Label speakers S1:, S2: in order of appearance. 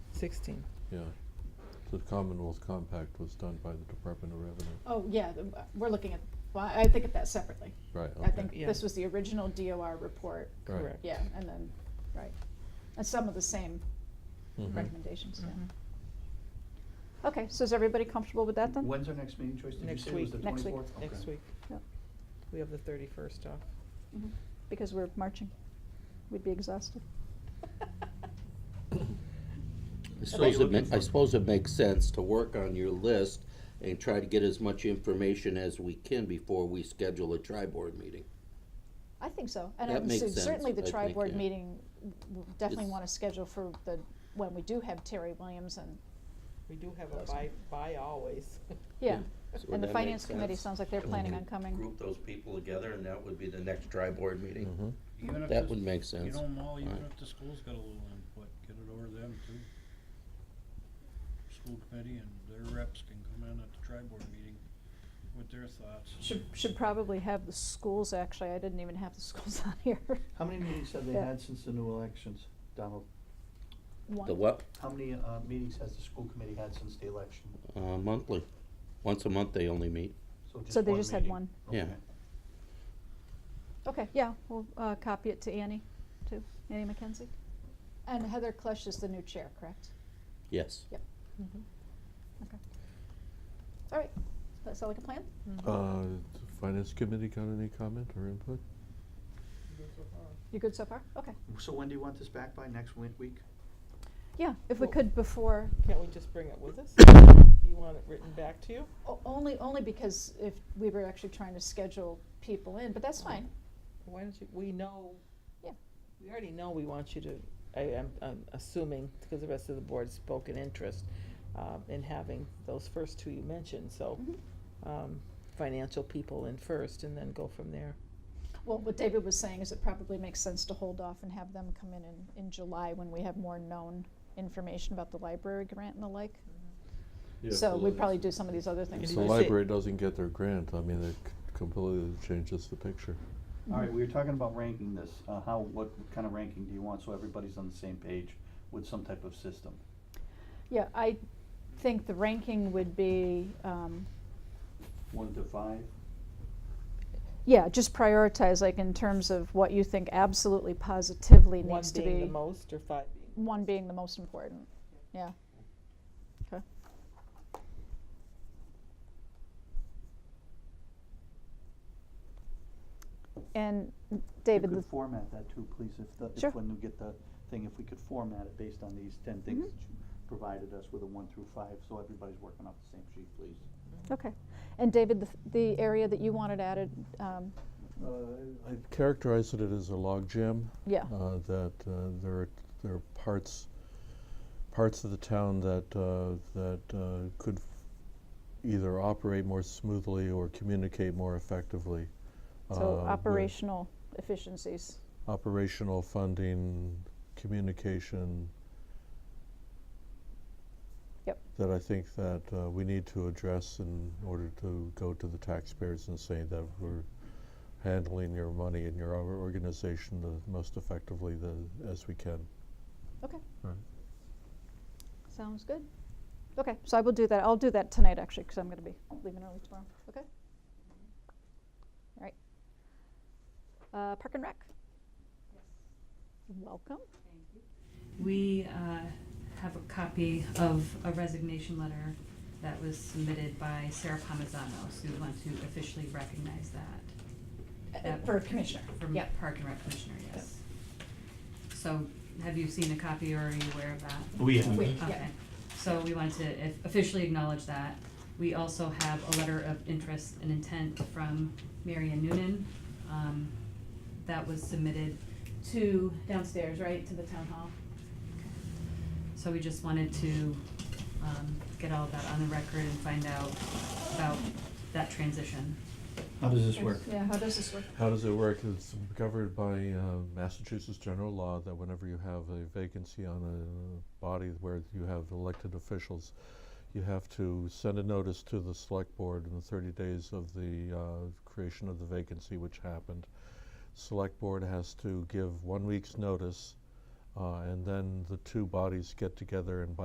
S1: sixteen.
S2: Yeah. The Commonwealth Compact was done by the Department of Revenue.
S3: Oh, yeah, the- we're looking at, well, I think of that separately.
S2: Right,
S3: I
S2: okay.
S3: think
S1: Yeah.
S3: this was the original DOR report,
S2: Right.
S1: Correct.
S3: yeah, and then, right. And some of the same
S4: Mm-hmm.
S2: Mhm.
S3: recommendations,
S1: Mhm.
S3: yeah. Okay, so is everybody comfortable with that then?
S5: When's our next meeting, Joyce? Did you
S1: Next
S5: say it was
S1: week.
S5: the
S3: Next week.
S5: 24th? Okay.
S1: Next week,
S3: Yep.
S1: we have the thirty-first off.
S3: Mhm. Because we're marching. We'd be exhausted.
S4: I
S5: what you're
S4: suppose it,
S5: looking
S4: ma- I
S5: for.
S4: suppose it makes sense to work on your list and try to get as much information as we can before we schedule a tri-board meeting.
S3: I think so. And
S4: That
S3: I'm
S4: makes
S3: su-
S4: sense,
S3: certainly the
S4: I think,
S3: tri-board
S4: yeah.
S3: meeting, w- we'll definitely
S4: It's-
S3: want to schedule for the, when we do have Terry Williams and,
S1: We do have a
S3: Awesome.
S1: buy, buy always.
S3: yeah.
S4: So
S3: And the
S4: that
S3: finance
S4: makes
S3: committee
S4: sense.
S3: sounds like they're
S4: And we
S3: planning
S4: can
S3: on coming.
S4: Group those people together and that would be the next tri-board meeting.
S2: Mhm.
S6: Even if
S4: That
S6: this-
S4: would make
S6: You
S4: sense.
S6: know, Mal, even
S4: Right.
S6: if the school's got a little input, get it over to them too. School committee and their reps can come in at the tri-board meeting with their thoughts.
S3: Should, should probably have the schools, actually. I didn't even have the schools on here.
S5: How many meetings have they
S3: Yeah.
S5: had since the new elections, Donald?
S3: One.
S4: The what?
S5: How many uh, meetings has the school committee had since the election?
S4: Uh, monthly. Once a month they only meet.
S3: So they just had
S5: meeting?
S3: one.
S4: Yeah.
S5: Okay.
S3: Okay, yeah, we'll uh, copy it to Annie, too. Annie McKenzie. And Heather Klesch is the new chair, correct?
S4: Yes.
S3: Yep. Mm-hmm. Okay. All right. Does that sound like a plan?
S2: Uh, the Finance Committee got any comment or input?
S3: You good so far? Okay.
S5: So when do you want this back by, next win- week?
S3: Mm-hmm. Yeah, if we
S1: Well-
S3: could before,
S1: Can't we just bring it with us? Do you want it written back to you?
S3: o- only, only because if we were actually trying to schedule people in, but that's fine.
S1: Why don't you, we know.
S3: Yeah.
S1: We already know we want you to, I, I'm, I'm assuming, because the rest of the board spoke an interest, um, in having those first two you mentioned,
S4: Oh.
S1: so,
S3: Mhm.
S1: um, financial people in first and then go from there.
S3: Well, what David was saying is it probably makes sense to hold off and have them come in in, in July when we have more known information about the library grant and the like. So we'd probably do some of these other
S1: You
S2: If
S3: things.
S1: can
S2: the
S1: do-
S2: library doesn't get their grant, I mean, it c- completely changes the picture.
S5: All right, we were talking about ranking this, uh, how, what kind of ranking do you want, so everybody's on the same page with some type of system?
S3: Yeah, I think the ranking would be, um,
S5: One to five?
S3: yeah, just prioritize, like in terms of what you think absolutely positively
S1: One
S3: needs to be.
S1: being the most or five being?
S3: one being the most important, yeah. Okay. And David,
S5: You
S3: the-
S5: could format that too, please, if the,
S3: Sure.
S5: if when you get the thing, if we could format it based on these ten things
S3: Mhm.
S5: that you provided us with a one through five, so everybody's working off the same sheet, please.
S3: okay, and David, the, the area that you wanted added, um,
S2: Uh, I'd characterize it as a logjam.
S3: yeah,
S2: uh, that uh, there are, there are parts, parts of the town that, uh, that uh, could f- either operate more smoothly or communicate more effectively. uh,
S3: so
S2: with
S3: operational efficiencies,
S2: Operational funding, communication.
S3: Yep.
S2: That I think that uh, we need to address in order to go to the taxpayers and say that we're handling your money and your or- organization the most effectively the, as we can.
S3: okay.
S2: Right.
S3: Sounds good. Okay, so I will do that, I'll do that tonight actually, because I'm gonna be leaving early tomorrow, okay? All right. Uh, Park and Rec? Welcome.
S7: We uh, have a copy of a resignation letter that was submitted by Sarah Pomazano, so we want to officially recognize that. That-
S3: Uh, For Commissioner,
S7: From
S3: yeah.
S7: Park and Rec Commissioner, yes. So have you seen a copy or are you aware of that?
S5: We
S3: We-
S7: Okay, so we wanted to if- officially acknowledge that. We also have a letter of interest and intent from Mary Ann Noonan. um, That was submitted to downstairs, right, to the town hall? So we just wanted to um, get all of that on the record and find out about that transition.
S5: How does this work?
S3: Yeah, how does this work?
S2: How does it work? It's governed by uh, Massachusetts general law that whenever you have a vacancy on a body where you have elected officials, you have to send a notice to the select board in the 30 days of the uh, creation of the vacancy, which happened. Select board has to give one week's notice, uh, and then the two bodies get together and by